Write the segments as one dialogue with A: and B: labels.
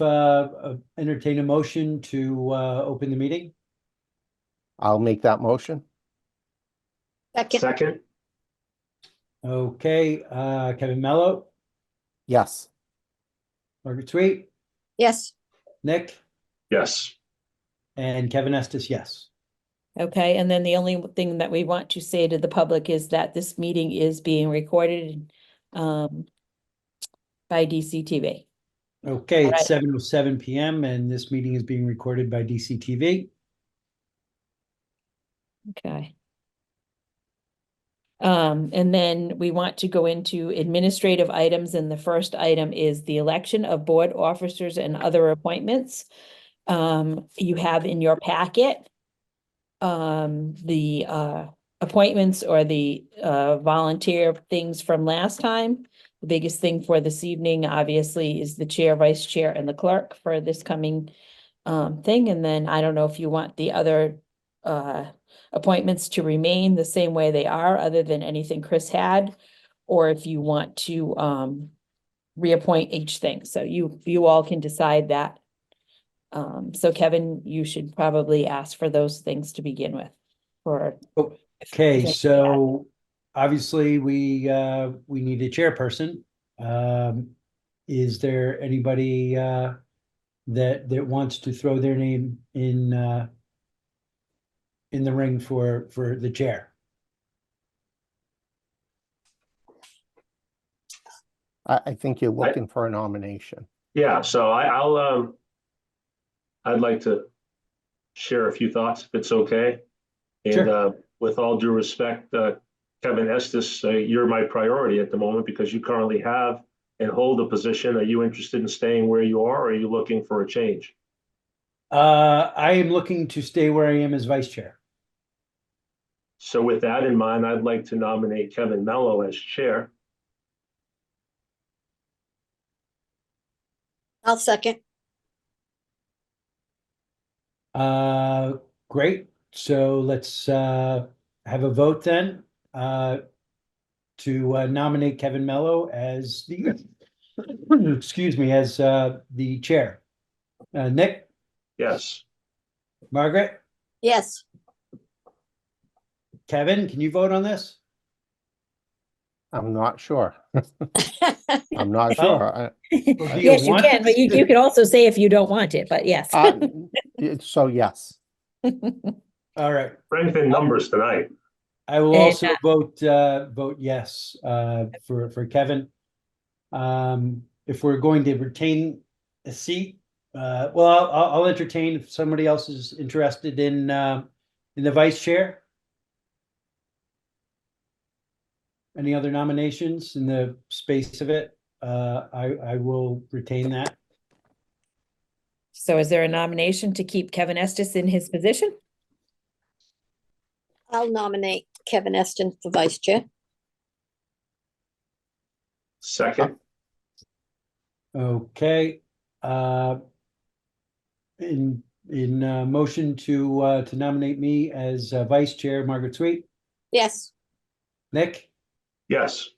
A: uh, uh, entertain a motion to, uh, open the meeting.
B: I'll make that motion.
C: Second,
D: Second,
A: Okay, uh, Kevin Mello,
B: Yes,
A: Margaret Sweet,
C: yes,
A: Nick,
D: yes,
A: and Kevin Estes, yes.
E: Okay, and then the only thing that we want to say to the public is that this meeting is being recorded um by DCTV.
A: Okay,
E: All right.
A: it's seven oh seven PM and this meeting is being recorded by DCTV.
E: Okay. Um, and then we want to go into administrative items, and the first item is the election of board officers and other appointments. Um, you have in your packet um, the uh appointments or the uh volunteer things from last time. The biggest thing for this evening, obviously, is the chair, vice chair, and the clerk for this coming um thing, and then I don't know if you want the other uh appointments to remain the same way they are, other than anything Chris had, or if you want to um reappoint each thing. So you you all can decide that. Um, so Kevin, you should probably ask for those things to begin with, or.
A: Oh, Okay, so obviously we, uh, we need a chairperson. Um, is there anybody, uh, that, that wants to throw their name in, uh, in the ring for, for the chair?
B: I, I think you're
D: I-
B: looking for a nomination.
D: yeah, so I, I'll, um. I'd like to share a few thoughts, if it's okay. And,
A: Sure.
D: uh, with all due respect, uh, Kevin Estes, uh, you're my priority at the moment because you currently have and hold a position. Are you interested in staying where you are, or are you looking for a change?
A: Uh, I am looking to stay where I am as vice chair.
D: So with that in mind, I'd like to nominate Kevin Mello as chair.
C: I'll second,
A: Uh, great. So let's, uh, have a vote then, uh, to uh, nominate Kevin Mello as the, excuse me, as, uh, the chair. Uh, Nick,
D: Yes,
A: Margaret,
C: yes,
A: Kevin, can you vote on this?
B: I'm not sure. I'm not
A: Oh.
B: sure. I-
A: Or do
E: Yes, you
A: want
E: can, but you you can also say if you don't want it, but yes.
B: I- it- So yes,
A: All right.
D: strength in numbers tonight.
A: I will
E: And,
A: also vote, uh, vote yes, uh, for, for Kevin. Um, if we're going to retain a seat, uh, well, I'll- I'll, I'll entertain if somebody else is interested in, uh, in the vice chair. Any other nominations in the space of it? Uh, I, I will retain that.
E: So is there a nomination to keep Kevin Estes in his position?
C: I'll nominate Kevin Eston for vice chair.
D: Second,
A: Okay, uh. In, in, uh, motion to, uh, to nominate me as uh, vice chair, Margaret Sweet,
C: Yes,
A: Nick,
D: yes,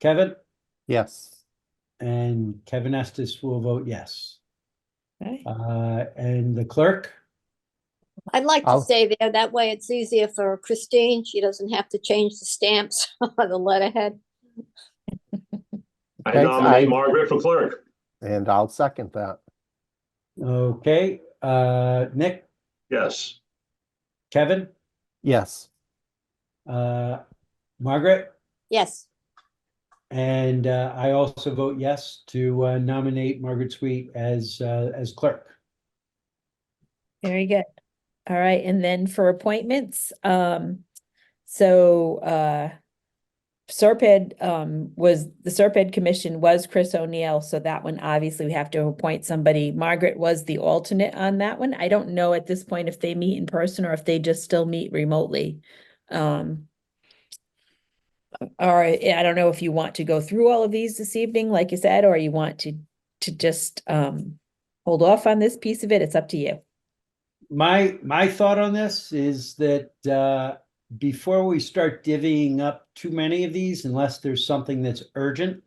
A: Kevin,
B: yes,
A: and Kevin Estes will vote yes.
E: Okay.
A: Uh, and the clerk,
C: I'd like to
B: I'll-
C: stay there. That way it's easier for Christine. She doesn't have to change the stamps on the letterhead.
D: I
B: Thanks,
D: nominate
B: I-
D: Margaret for clerk.
B: and I'll second that.
A: okay, uh, Nick,
D: Yes,
A: Kevin,
B: Yes,
A: uh, Margaret,
C: Yes,
A: and, uh, I also vote yes to, uh, nominate Margaret Sweet as, uh, as clerk.
E: Very good. All right, and then for appointments, um, so, uh, Serped, um, was, the Serped Commission was Chris O'Neill, so that one, obviously, we have to appoint somebody. Margaret was the alternate on that one. I don't know at this point if they meet in person or if they just still meet remotely. Um, or I don't know if you want to go through all of these this evening, like you said, or you want to, to just, um, hold off on this piece of it. It's up to you.
A: My, my thought on this is that, uh, before we start divvying up too many of these, unless there's something that's urgent,